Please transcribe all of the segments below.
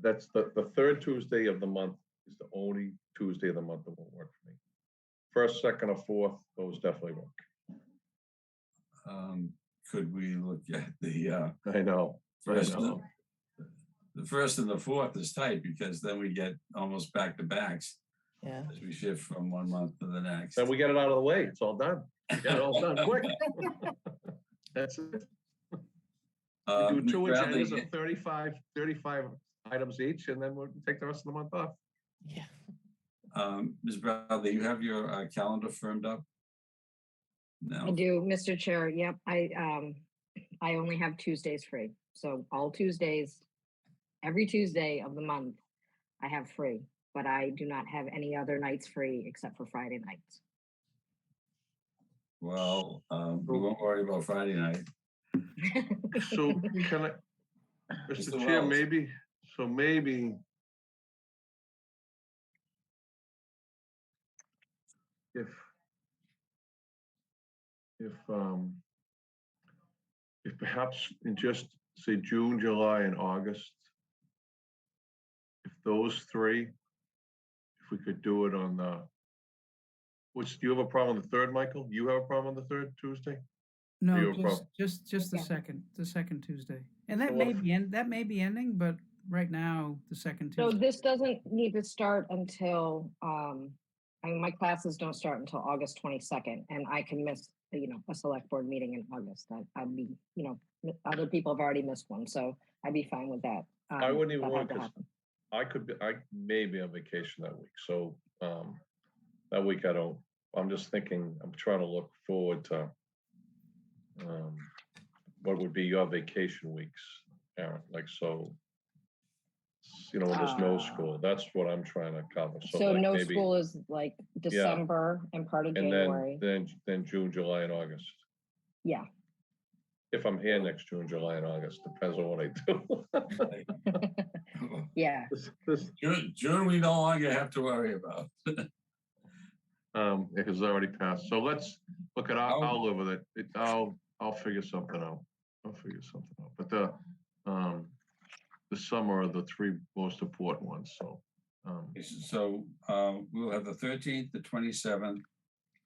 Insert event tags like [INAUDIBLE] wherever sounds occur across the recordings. that's the, the third Tuesday of the month is the only Tuesday of the month that won't work for me. First, second, or fourth, those definitely work. Um, could we look at the, uh, I know. I first, know. the first and the fourth is tight because then we get almost back to backs Yeah. as we shift from one month to the next. Then we get it out of the way. It's all done. Get it all [LAUGHS] done quick. [LAUGHS] That's it. Uh, We do Ms. two Bradley, agendas of 35, 35 items each, and then we'll take the rest of the month off. Yeah. um, Ms. Bradley, you have your uh, calendar firmed up? I No, do, Mr. Chair. Yep, I, um, I only have Tuesdays free. So all Tuesdays, every Tuesday of the month, I have free, but I do not have any other nights free except for Friday nights. well, um, we won't worry about Friday night. So can I, Mr. Mr. Chair, Wells. maybe, so maybe. If. If, um. If perhaps in just, say, June, July, and August. If those three, if we could do it on the. Which, do you have a problem on the third, Michael? You have a problem on the third Tuesday? No, your just, problem. just, just the Yeah. second, the second Tuesday. And that what may if- be, end. that may be ending, but right now, the [LAUGHS] second So Tuesday. this doesn't need to start until, um, I mean, my classes don't start until August twenty-second, and I can miss, you know, a select board meeting in August. I, I'd be, you know, m- other people have already missed one, so I'd be fine with that. I um, wouldn't even that had want to to, happen. I could be, I may be on vacation that week, so, um, that week I don't, I'm just thinking, I'm trying to look forward to, um, what would be your vacation weeks, Aaron, like, so, you know, when there's no Ah. school, that's what I'm trying to cover, so. So like, no maybe- school is like December and part of And then, January. then, then June, July, and August, Yeah, if I'm here next June, July, and August, depends on what I do. [LAUGHS] yeah. This, this, June, June, we no longer have to worry about. um, it has already passed, so let's look at, I'll, I'll- I'll live with it, it, I'll, I'll figure something out, I'll figure something out, but the, um, the summer are the three most important ones, so, um, So uh, we'll have the 13th, the 27th,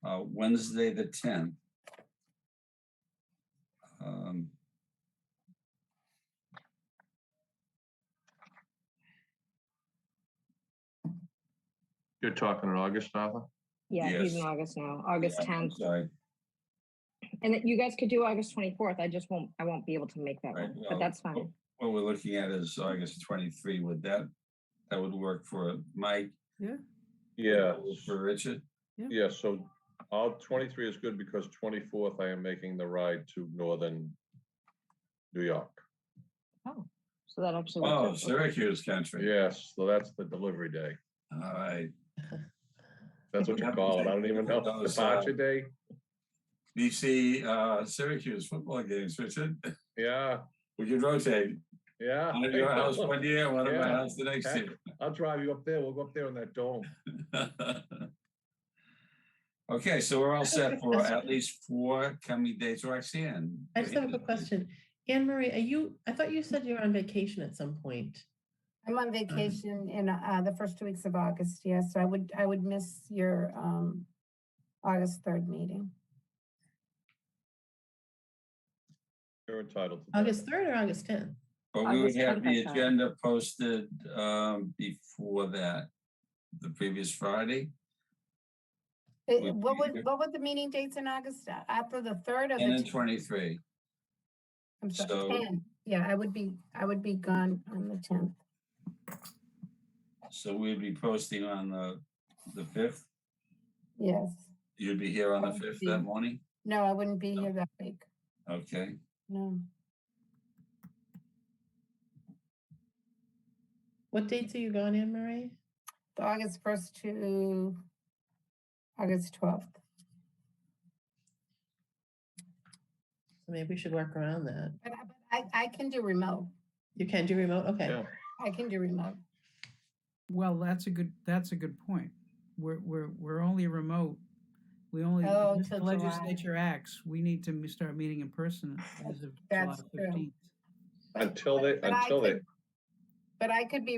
uh, Wednesday, the 10th. Um, you're talking in August, Arthur? Yeah, he's in Yes. August now, August yeah, I'm tenth, Sorry, and that you guys could do August twenty-fourth, I just won't, I won't be able to make that Right, one, well, but that's fine. well, what we're looking at is August 23. Would that, that would work for Mike? Yeah, Yeah, For Richard? yeah, so, all twenty-three is good because twenty-fourth I am making the ride to northern New York. Oh, so that actually. works Oh, out for- Syracuse country. Yes, so that's the delivery day, All right. that's what you call it, I don't even know, Those, uh, departure day, You see uh, Syracuse football games, Richard. [LAUGHS] yeah, We could rotate. yeah. One at your house one year, one at my Yeah. house the next year. I'll drive you up there. We'll go up there on that dome. [LAUGHS] Okay, so we're all I have a set for question. at least four coming dates, Roxanne. I just what do have you a think? question. Anne Marie, are you, I thought you said you were on vacation at some point. I'm on [CLEARS THROAT] vacation in uh, the first two weeks of August, yes, so I would, I would miss your um, August 3rd meeting. You're entitled to. that. August 3rd or August 10th? But we would August have the 25th, sorry. agenda posted um, before that, the previous Friday. Uh, Would What be would, good. what were the meeting dates in August Uh, after the 3rd or And the? then 10th? twenty-three. I'm so- sorry, 10. Yeah, I would be, I would be gone on the 10th. So we'd be posting on the, the fifth. Yes. You'd be here on the That would fifth be- that morning? No, I wouldn't be No. here that week. Okay. No. What dates are you gone, Anne Marie? The August 1st to August 12th. So Maybe we should work around that. But I- but I, I can do remote. You can do remote? Okay. Yeah. I can do remote. well, that's a good, that's a good point. We're, we're, we're only remote. We only, Oh, if the till July. legislature acts, we need to m- start meeting in person as of July That's true. fifteenth. but- Until they- but I until they- could- But I could be